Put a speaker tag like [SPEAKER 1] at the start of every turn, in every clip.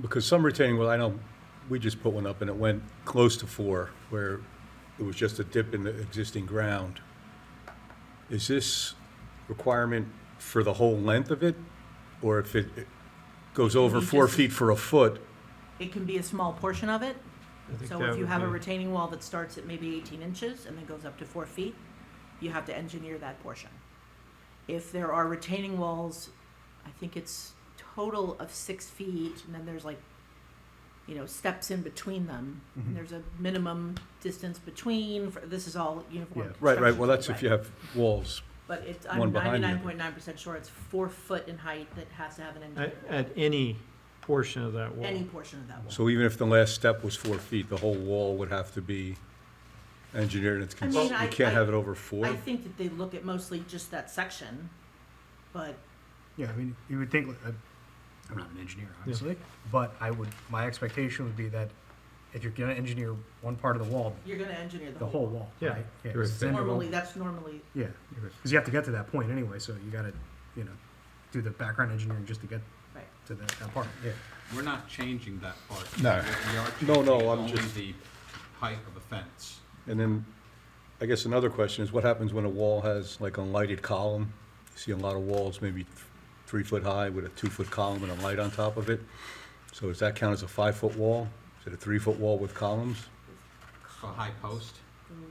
[SPEAKER 1] Because some retaining wall, I know, we just put one up and it went close to four, where it was just a dip in the existing ground. Is this requirement for the whole length of it? Or if it it goes over
[SPEAKER 2] You
[SPEAKER 1] four
[SPEAKER 2] just-
[SPEAKER 1] feet for a foot?
[SPEAKER 2] It can be a small portion of it.
[SPEAKER 3] I think
[SPEAKER 2] So
[SPEAKER 3] that
[SPEAKER 2] if you
[SPEAKER 3] would
[SPEAKER 2] have a
[SPEAKER 3] be-
[SPEAKER 2] retaining wall that starts at maybe 18 inches and then goes up to four feet, you have to engineer that portion. If there are retaining walls, I think it's total of six feet, and then there's like, you know, steps in between them.
[SPEAKER 1] Mm-hmm.
[SPEAKER 2] And there's a minimum distance between, for- this is all uniform.
[SPEAKER 1] Right, right,
[SPEAKER 2] construction,
[SPEAKER 1] well, that's if
[SPEAKER 2] right.
[SPEAKER 1] you have walls.
[SPEAKER 2] But it's,
[SPEAKER 1] one
[SPEAKER 2] I'm
[SPEAKER 1] behind the other.
[SPEAKER 2] ninety-nine point nine percent sure it's four foot in height that has to have an
[SPEAKER 3] At,
[SPEAKER 2] engineer,
[SPEAKER 3] at any portion of that wall.
[SPEAKER 2] any portion of that wall.
[SPEAKER 1] So even if the last step was four feet, the whole wall would have to be engineered and it's,
[SPEAKER 2] I
[SPEAKER 1] cons-
[SPEAKER 2] mean,
[SPEAKER 1] you
[SPEAKER 2] I-
[SPEAKER 1] can't
[SPEAKER 2] I-
[SPEAKER 1] have it over four?
[SPEAKER 2] I think that they look at mostly just that section, but
[SPEAKER 4] Yeah, I mean, you would think, uh, I'm not an engineer, obviously, but I would, my expectation would be that if you're gonna engineer one part of the wall,
[SPEAKER 2] you're gonna engineer the
[SPEAKER 4] the whole
[SPEAKER 2] whole.
[SPEAKER 4] wall,
[SPEAKER 3] Yeah.
[SPEAKER 4] right? Yeah, 'cause
[SPEAKER 3] You're
[SPEAKER 4] it's
[SPEAKER 3] right.
[SPEAKER 4] in the wall.
[SPEAKER 2] Normally, that's normally,
[SPEAKER 4] Yeah, because you have to get to that point anyway, so you gotta, you know, do the background engineering just to get
[SPEAKER 2] right.
[SPEAKER 4] to that, that part, yeah.
[SPEAKER 5] We're not changing that part.
[SPEAKER 1] No.
[SPEAKER 5] What we are
[SPEAKER 1] No, no,
[SPEAKER 5] changing is
[SPEAKER 1] I'm
[SPEAKER 5] only
[SPEAKER 1] just-
[SPEAKER 5] the height of the fence.
[SPEAKER 1] And then, I guess another question is, what happens when a wall has like a lighted column? You see a lot of walls, maybe th- three foot high with a two foot column and a light on top of it. So does that count as a five foot wall? Is it a three foot wall with columns
[SPEAKER 5] A high post,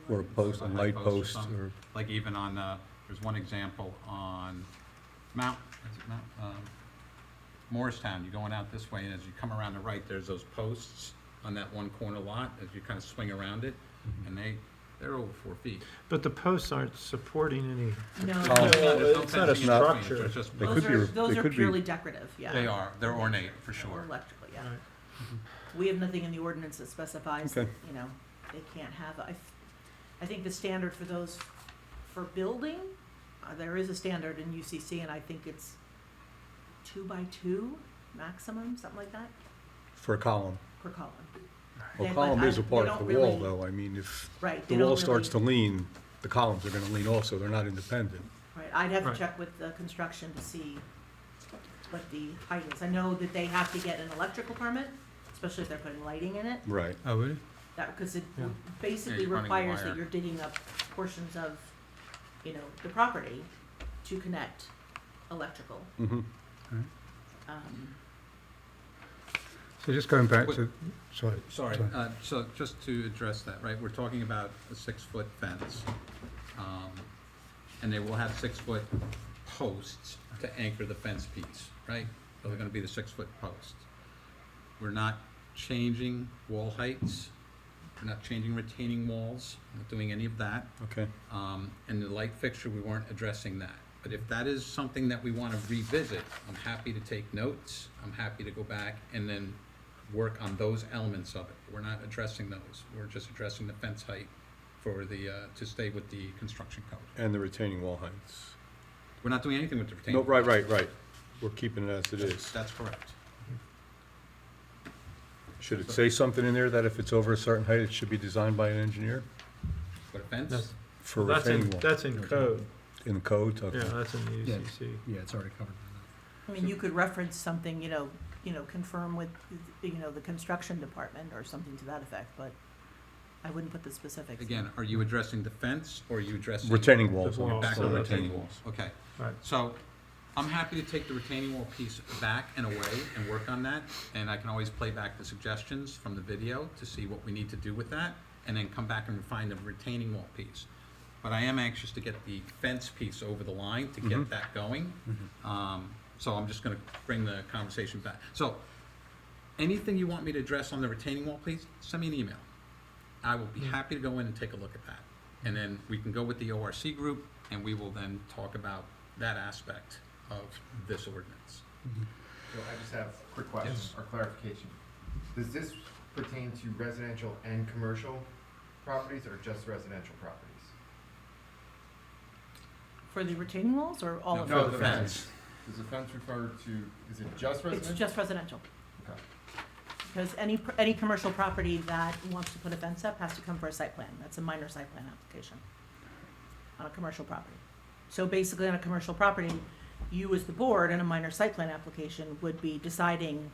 [SPEAKER 1] or a post, a
[SPEAKER 5] A high
[SPEAKER 1] light
[SPEAKER 5] post or
[SPEAKER 1] post
[SPEAKER 5] something.
[SPEAKER 1] or?
[SPEAKER 5] like even on, uh, there's one example on Mount, is it Mount, um, Morristown, you're going out this way, and as you come around the right, there's those posts on that one corner lot, as you kind of swing around it, and they, they're over four feet.
[SPEAKER 3] But the posts aren't supporting
[SPEAKER 1] Oh.
[SPEAKER 3] any,
[SPEAKER 2] No,
[SPEAKER 5] There's no- there's no
[SPEAKER 3] it's not a
[SPEAKER 5] fencing in between,
[SPEAKER 3] structure.
[SPEAKER 5] there's just-
[SPEAKER 1] They
[SPEAKER 2] those
[SPEAKER 1] could be
[SPEAKER 2] are,
[SPEAKER 1] re-
[SPEAKER 2] those
[SPEAKER 1] they
[SPEAKER 2] are
[SPEAKER 1] could be-
[SPEAKER 2] purely decorative, yeah.
[SPEAKER 5] They are, they're ornate, for sure.
[SPEAKER 2] Electrical, yeah.
[SPEAKER 3] Right.
[SPEAKER 2] We have nothing in the ordinance that specifies, that,
[SPEAKER 1] Okay.
[SPEAKER 2] you know, they can't have, I, I think the standard for those, for building, uh, there is a standard in UCC, and I think it's two by two maximum, something like that,
[SPEAKER 1] For a column?
[SPEAKER 2] per column.
[SPEAKER 1] Well,
[SPEAKER 2] They- but
[SPEAKER 1] column
[SPEAKER 2] I-
[SPEAKER 1] is a
[SPEAKER 2] they
[SPEAKER 1] part
[SPEAKER 2] don't
[SPEAKER 1] of the wall
[SPEAKER 2] really-
[SPEAKER 1] though. I mean, if
[SPEAKER 2] Right.
[SPEAKER 1] the
[SPEAKER 2] they don't
[SPEAKER 1] wall starts to
[SPEAKER 2] really-
[SPEAKER 1] lean, the columns are gonna lean also. They're not independent.
[SPEAKER 2] Right, I'd have to
[SPEAKER 3] Right.
[SPEAKER 2] check with the construction to see what the height is. I know that they have to get an electrical permit, especially if they're putting lighting in it.
[SPEAKER 1] Right.
[SPEAKER 5] Oh, really?
[SPEAKER 2] That, because it
[SPEAKER 3] Yeah.
[SPEAKER 2] basically
[SPEAKER 5] Yeah, you're running the
[SPEAKER 2] requires that
[SPEAKER 5] wire.
[SPEAKER 2] you're digging up portions of, you know, the property to connect electrical.
[SPEAKER 1] Mm-hmm.
[SPEAKER 2] Um,
[SPEAKER 6] So just going back
[SPEAKER 5] Wait.
[SPEAKER 6] to, sorry.
[SPEAKER 5] Sorry, uh, so just to address that, right, we're talking about a six-foot fence. um, And they will have six-foot posts to anchor the fence piece, right? So they're gonna be the six-foot posts. We're not changing wall heights, we're not changing retaining walls, not doing any of that.
[SPEAKER 1] Okay.
[SPEAKER 5] Um, And the light fixture, we weren't addressing that. But if that is something that we want to revisit, I'm happy to take notes. I'm happy to go back and then work on those elements of it. We're not addressing those. We're just addressing the fence height for the, uh, to stay with the construction code.
[SPEAKER 1] And the retaining wall heights.
[SPEAKER 5] We're not doing anything with the retaining.
[SPEAKER 1] No, right, right, right. We're keeping it as it
[SPEAKER 5] That's-
[SPEAKER 1] is.
[SPEAKER 5] That's correct.
[SPEAKER 1] Should it say something in there that if it's over a certain height, it should be designed by an engineer
[SPEAKER 5] But a fence,
[SPEAKER 3] that's,
[SPEAKER 1] for
[SPEAKER 3] that's in,
[SPEAKER 1] retaining wall?
[SPEAKER 3] that's in code,
[SPEAKER 1] In code, okay.
[SPEAKER 3] yeah, that's in the
[SPEAKER 4] Yeah.
[SPEAKER 3] UCC.
[SPEAKER 4] Yeah, it's already covered by that.
[SPEAKER 2] I mean, you could reference something, you know, you know, confirm with, you know, the construction department or something to that effect, but I wouldn't put the specifics.
[SPEAKER 5] again, are you addressing the fence or are you addressing?
[SPEAKER 1] Retaining walls.
[SPEAKER 3] The
[SPEAKER 1] I'm
[SPEAKER 3] walls,
[SPEAKER 5] Back
[SPEAKER 1] sorry,
[SPEAKER 5] on
[SPEAKER 3] the
[SPEAKER 5] retaining walls, okay.
[SPEAKER 3] Right.
[SPEAKER 5] So I'm happy to take the retaining wall piece back and away and work on that. And I can always play back the suggestions from the video to see what we need to do with that and then come back and refine the retaining wall piece. But I am anxious to get the fence piece over the line to
[SPEAKER 3] Mm-hmm.
[SPEAKER 5] get that going.
[SPEAKER 4] Mm-hmm.
[SPEAKER 5] Um, So I'm just gonna bring the conversation back. So anything you want me to address on the retaining wall, please, send me an email. I will be happy to go in and take a look at that. And then we can go with the ORC group, and we will then talk about that aspect of this ordinance.
[SPEAKER 4] Mm-hmm.
[SPEAKER 7] So I just have a quick question
[SPEAKER 5] Yes.
[SPEAKER 7] or clarification. Does this pertain to residential and commercial properties or just residential properties?
[SPEAKER 2] For the retaining walls or all of
[SPEAKER 5] No,
[SPEAKER 2] them?
[SPEAKER 5] for the fence.
[SPEAKER 7] Does the fence refer to, is it just
[SPEAKER 2] It's
[SPEAKER 7] residential?
[SPEAKER 2] just residential.
[SPEAKER 7] Okay.
[SPEAKER 2] Because any, pr- any commercial property that wants to put a fence up has to come for a site plan. That's a minor site plan application on a commercial property. So basically, on a commercial property, you as the board in a minor site plan application would be deciding